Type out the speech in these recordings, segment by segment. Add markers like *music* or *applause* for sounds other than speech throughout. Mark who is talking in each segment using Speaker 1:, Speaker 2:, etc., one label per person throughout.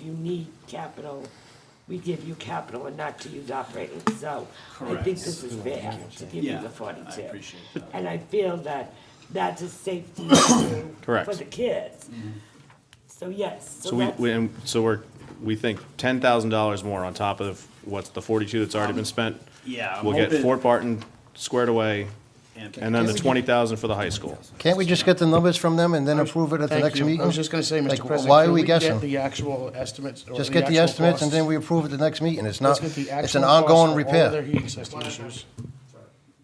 Speaker 1: you need capital, we give you capital and not to use operating, so I think
Speaker 2: Correct.
Speaker 1: this is fair to give you
Speaker 2: Yeah,
Speaker 1: the forty-two.
Speaker 2: I appreciate that.
Speaker 1: And I feel that that's a safety issue
Speaker 3: Correct.
Speaker 1: for the kids.
Speaker 2: Mm-hmm.
Speaker 1: So yes, so
Speaker 3: So we,
Speaker 1: that's,
Speaker 3: we, and so we're, we think ten thousand dollars more on top of what's the forty-two that's already been spent.
Speaker 2: yeah, I'm
Speaker 3: We'll get
Speaker 2: hoping-
Speaker 3: Fort Barton squared away,
Speaker 2: And-
Speaker 3: and then
Speaker 4: Can we
Speaker 3: the
Speaker 4: get-
Speaker 3: twenty thousand for the high school.
Speaker 4: Can't we just get the numbers from them and then approve it at the
Speaker 5: Thank
Speaker 4: next
Speaker 5: you.
Speaker 4: meeting?
Speaker 5: I was just gonna say,
Speaker 4: Like,
Speaker 5: Mr. President.
Speaker 4: Why are
Speaker 5: can
Speaker 4: we
Speaker 5: get
Speaker 4: guessing?
Speaker 5: The actual estimates. or
Speaker 4: Just get the
Speaker 5: actual
Speaker 4: estimates and then
Speaker 5: costs?
Speaker 4: we approve it the next meeting. It's
Speaker 5: Let's
Speaker 4: not,
Speaker 5: get the
Speaker 4: it's
Speaker 5: actual
Speaker 4: an
Speaker 5: costs
Speaker 4: ongoing
Speaker 5: for All their
Speaker 4: repair.
Speaker 5: heating system issues.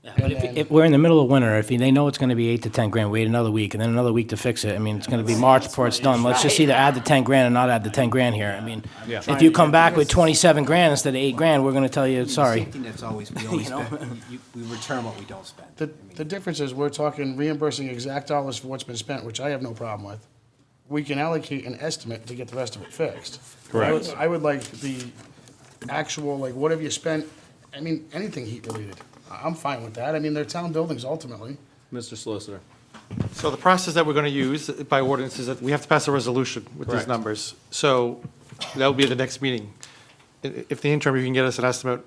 Speaker 6: Yeah, but
Speaker 5: And
Speaker 6: if,
Speaker 5: then-
Speaker 6: if we're in the middle of winter, if they know it's gonna be eight to ten grand, wait another week, and then another week to fix it, I mean, it's gonna be March before it's done, let's just either add the ten grand or not add the ten grand here, I mean,
Speaker 3: Yeah.
Speaker 6: if you come back with twenty-seven grand instead of eight grand, we're gonna tell you, sorry.
Speaker 7: Something that's always, we always spend, You- we return what we don't spend.
Speaker 5: The, the difference is, we're talking reimbursing exact dollars for what's been spent, which I have no problem with. We can allocate an estimate to get the rest of it fixed. I would-
Speaker 3: Correct.
Speaker 5: I would like the actual, like, what have you spent, I mean, anything heat related. I- I'm fine with that, I mean, they're town buildings ultimately.
Speaker 3: Mr. Solicitor.
Speaker 8: So the process that we're going to use by ordinance is that we have to pass a resolution with
Speaker 3: Correct.
Speaker 8: these numbers. So that'll be at the next meeting. I- If the interim, you can get us an estimate,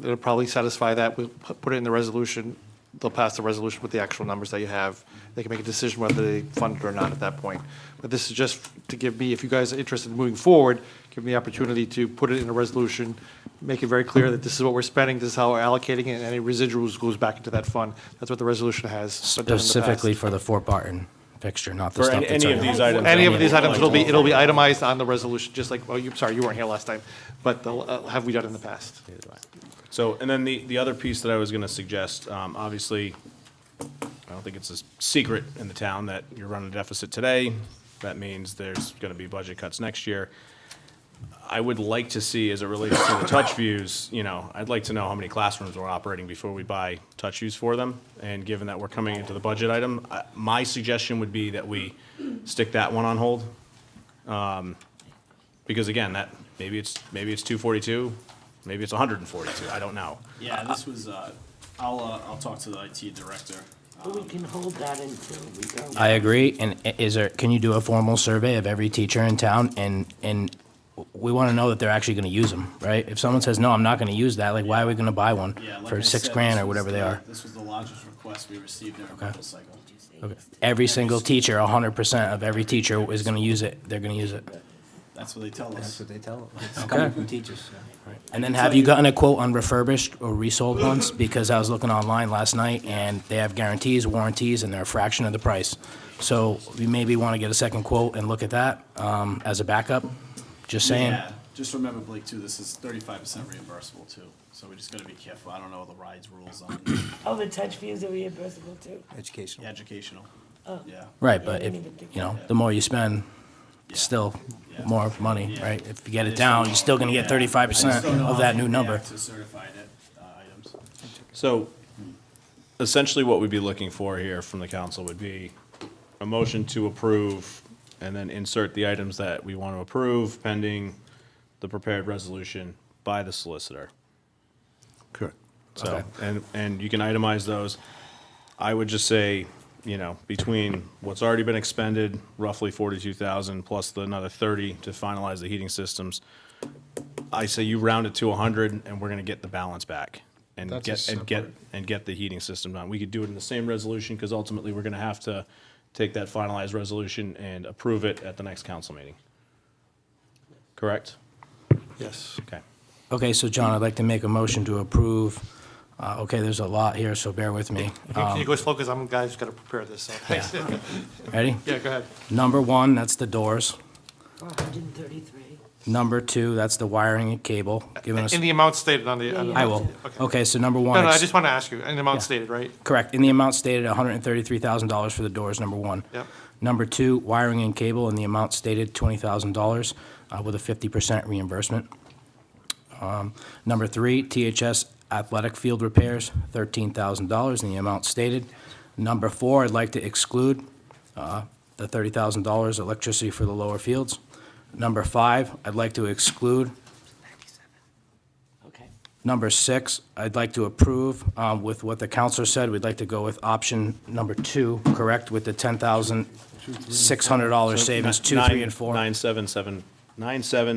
Speaker 8: it'll probably satisfy that. We'll pu- put it in the resolution. They'll pass the resolution with the actual numbers that you have. They can make a decision whether they fund it or not at that point. But this is just to give me, if you guys are interested in moving forward, give me the opportunity to put it in a resolution, make it very clear that this is what we're spending, this is how we're allocating it, and any residuals goes back into that fund. That's what the resolution has. but done in the past.
Speaker 6: Specifically for the Fort Barton fixture, not the
Speaker 3: For
Speaker 6: stuff
Speaker 3: any-
Speaker 6: that's.
Speaker 3: any of
Speaker 6: already-
Speaker 3: these items.
Speaker 8: Any of these items, it'll be, it'll be itemized on the resolution, just like, oh, you, sorry, you weren't here last time, but they'll, uh, have we done in the past?
Speaker 3: So, and then the, the other piece that I was gonna suggest, um, obviously, I don't think it's a s- secret in the town that you're running a deficit today. That means there's gonna be budget cuts next year. I would like to see, as it relates to the touch views, you know, I'd like to know how many classrooms we're operating before we buy touch views for them. And given that we're coming into the budget item, I- my suggestion would be that we stick that one on hold. Um, Because again, that, maybe it's, maybe it's 242, maybe it's 142, I don't know.
Speaker 2: Yeah, this was, uh, I'll, uh, I'll talk to the IT director.
Speaker 1: but we can hold that until we go.
Speaker 6: I agree, and i- is there, can you do a formal survey of every teacher in town, and, and we wanna know that they're actually gonna use them, right? If someone says, no, I'm not gonna use that, like, why are we gonna buy one
Speaker 2: Yeah, like I
Speaker 6: for six
Speaker 2: said,
Speaker 6: grand
Speaker 2: this
Speaker 6: or
Speaker 2: was
Speaker 6: whatever they
Speaker 2: the-
Speaker 6: are?
Speaker 2: This was the largest request we received in our rental cycle.
Speaker 6: Okay. Every single teacher, hundred percent of every teacher is gonna use it, they're gonna use it.
Speaker 2: That's what they tell
Speaker 7: That's
Speaker 2: us.
Speaker 7: what they tell us. It's coming from teachers. yeah.
Speaker 6: And then have you gotten a quote on refurbished or resold ones? Because I was looking online last night and they have guarantees, warranties, and they're a fraction of the price. So you maybe wanna get a second quote and look at that, um, as a backup, just saying.
Speaker 2: Yeah, just remember, Blake, too, this is thirty-five percent reimbursable, too, so we just gotta be careful. I don't know the rides rules on
Speaker 1: Oh, the touch fees are reimbursable too?
Speaker 2: the
Speaker 7: Educational.
Speaker 2: educational. Yeah,
Speaker 6: Right,
Speaker 1: Yeah,
Speaker 6: but
Speaker 1: I
Speaker 6: if,
Speaker 1: didn't even think
Speaker 6: you know,
Speaker 1: about
Speaker 6: the more you spend,
Speaker 2: Yeah.
Speaker 6: still
Speaker 2: Yeah.
Speaker 6: more money,
Speaker 2: Yeah.
Speaker 6: right? If you get
Speaker 2: I
Speaker 6: it
Speaker 2: just
Speaker 6: down,
Speaker 2: don't
Speaker 6: you're still
Speaker 2: know.
Speaker 6: gonna
Speaker 2: Yeah.
Speaker 6: get
Speaker 2: I
Speaker 6: thirty-five
Speaker 2: just don't
Speaker 6: percent
Speaker 2: know
Speaker 6: of
Speaker 2: how
Speaker 6: that
Speaker 2: they
Speaker 6: new number.
Speaker 2: react To certified uh, items.
Speaker 3: So essentially what we'd be looking for here from the council would be a motion to approve and then insert the items that we want to approve pending the prepared resolution by the solicitor.
Speaker 7: Correct.
Speaker 3: So, and, and you can itemize those. I would just say, you know, between what's already been expended, roughly forty-two thousand, plus the another thirty to finalize the heating systems. I say you round it to hundred and we're gonna get the balance back. And
Speaker 5: That's a
Speaker 3: get, and get,
Speaker 5: separate-
Speaker 3: and get the heating system done. We could do it in the same resolution, because ultimately we're gonna have to take that finalized resolution and approve it at the next council meeting. Correct?
Speaker 8: Yes.
Speaker 3: Okay.
Speaker 6: Okay, so John, I'd like to make a motion to approve, uh, okay, there's a lot here, so bear with me. Uh,
Speaker 8: Can you
Speaker 6: Um,
Speaker 8: go slow, because I'm, guys, got to prepare this, so, thanks.
Speaker 6: Ready?
Speaker 8: *laughs* Yeah, go ahead.
Speaker 6: Number one, that's the doors.
Speaker 1: hundred and thirty-three.
Speaker 6: Number two, that's the wiring and cable, giving us,
Speaker 8: In the amount stated on the. on the-
Speaker 6: I will.
Speaker 8: Okay.
Speaker 6: Okay, so number one.
Speaker 8: No, no, I
Speaker 6: ex-
Speaker 8: just want to ask you, in the amount
Speaker 6: Yeah.
Speaker 8: stated, right?
Speaker 6: Correct, in the amount stated, hundred and thirty-three thousand dollars for the doors, number one.
Speaker 8: Yep.
Speaker 6: Number two, wiring and cable in the amount stated, twenty thousand dollars, uh, with a fifty percent reimbursement. Um, Number three, THS athletic field repairs, thirteen thousand dollars in the amount stated. Number four, I'd like to exclude, uh, the thirty thousand dollars electricity for the lower fields. Number five, I'd like to exclude
Speaker 1: Okay.
Speaker 6: Number six, I'd like to approve um, with what the counselor said. We'd like to go with option number two, correct, with the $10,600 savings, two, three, and four.
Speaker 3: Nine, seven, seven, nine, seven,